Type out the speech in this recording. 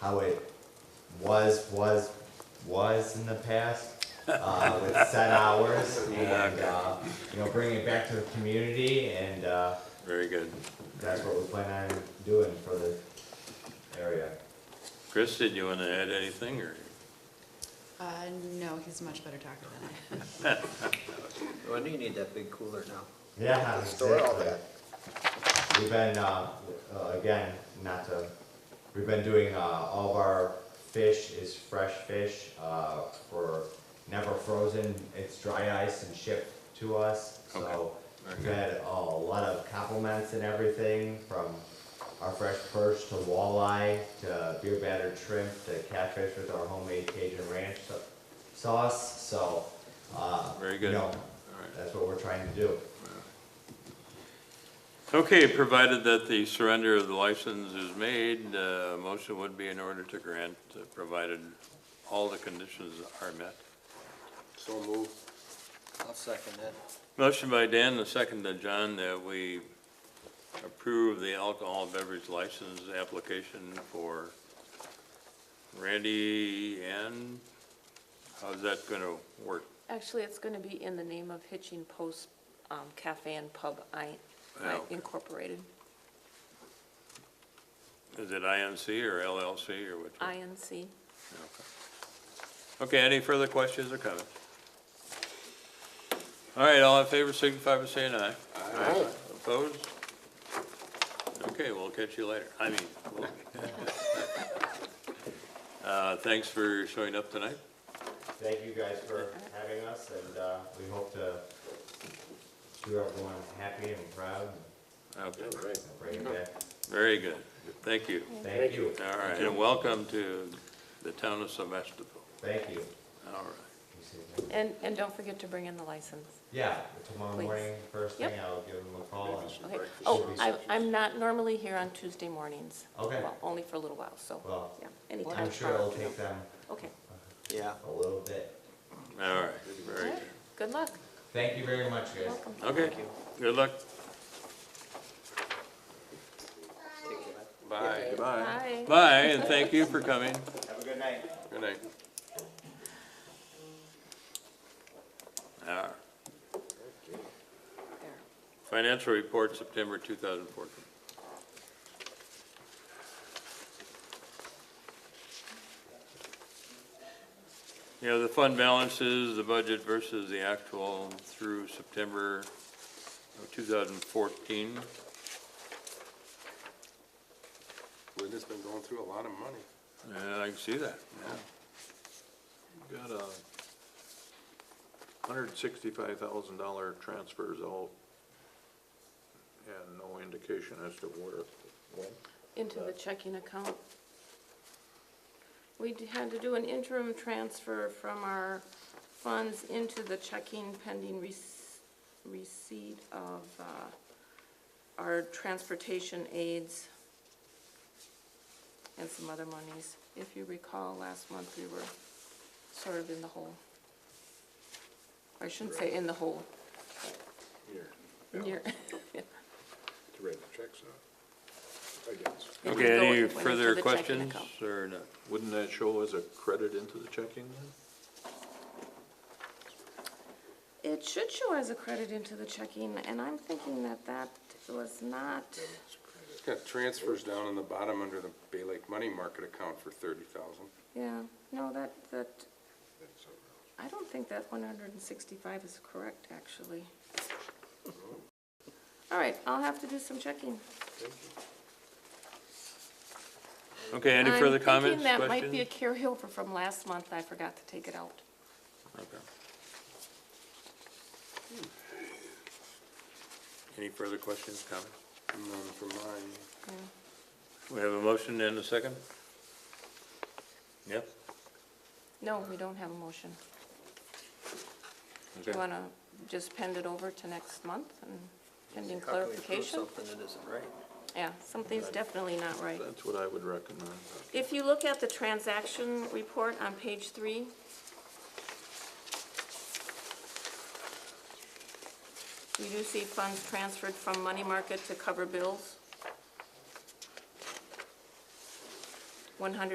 how it was, was, was in the past, uh, with set hours and, uh, you know, bringing it back to the community and, uh, Very good. that's what we plan on doing for the area. Chris, did you want to add anything, or? Uh, no, he's a much better talker than I. When do you need that big cooler now? Yeah, Store all exactly. that. We've been, uh, uh, again, not to, we've been doing, uh, all of our fish is fresh fish, uh, for never frozen, it's dry ice and shipped to us, so. Very We've good. had a lot of compliments and everything, from our fresh perch to walleye, to beer battered shrimp, to catfish with our homemade Cajun ranch sa- sauce, so, uh. Very you good. know, right. That's what we're trying to do. Okay, provided that the surrender of the license is made, uh, motion would be in order to grant, uh, provided all the conditions are met. So move. I'll second that. Motion by Dan, the second to John, that we approve the alcohol beverage license application for Randy and, how's that gonna work? Actually, it's going to be in the name of Hitching Post um, Cafe and Pub I- Oh, okay. Incorporated, Is it INC or LLC or which one? INC. Okay. Okay, any further questions or comments? All right, all in favor, signify by saying aye. Aye. Opposed? Okay, we'll catch you later. I mean, we'll- Uh, thanks for showing up tonight. Thank you guys for having us, and, uh, we hope to do everyone happy and proud, Okay, and bring it back. very good. Thank you. Thank you, All right, and welcome to the town of Sebastopol. thank you. All right. You see me? And, and don't forget to bring in the license. Yeah, tomorrow Please. morning, first thing, Yep. I'll give them a call. and- Okay. Oh, uh, Should we- I, I'm not normally here on Tuesday mornings. Okay. Well, only for a little while, so, Well, yeah, anytime. I'm sure it'll take them Okay, Yeah. a little bit. All right, very good. good luck. Thank you very much, guys. Welcome. Okay, good luck. Take that. Bye. Bye. Bye, and thank you for coming. Have a good night. Good night. Ah, There. Financial report, September 2014. You know, the fund balances, the budget versus the actual through September of 2014. We've just been going through a lot of money. Yeah, I can see that, yeah. Got a hundred and sixty-five thousand dollar transfers out and no indication as to where, when. Into the checking account. We d- had to do an interim transfer from our funds into the checking pending rec- receipt of uh, our transportation aids and some other monies. If you recall, last month we were sort of in the hole. I shouldn't say in the hole, Here, near. to write the checks out, I guess. It would Okay, go- it any went into further the checking questions account. or not? Wouldn't that show as a credit into the checking then? It should show as a credit into the checking, and I'm thinking that that was not, It's got transfers down in the bottom under the Bay Lake Money Market account for thirty thousand. yeah, no, that, that, I don't think that one hundred and sixty-five is correct, actually. All right, I'll have to do some checking. Okay, any further comments, I'm thinking that might be a questions? carryover from last month, I forgot to take it out. Okay. Hmm. Any further questions, comments? None for mine. Yeah. We have a motion and a second? Yep, No, we don't have a motion. Do you okay. want to just pend it over to next month and pending How can we prove clarification? Something that isn't right. Yeah, something's definitely not right. That's what I would recommend. If you look at the transaction report on page three, you do see funds transferred from money market to cover bills. One hundred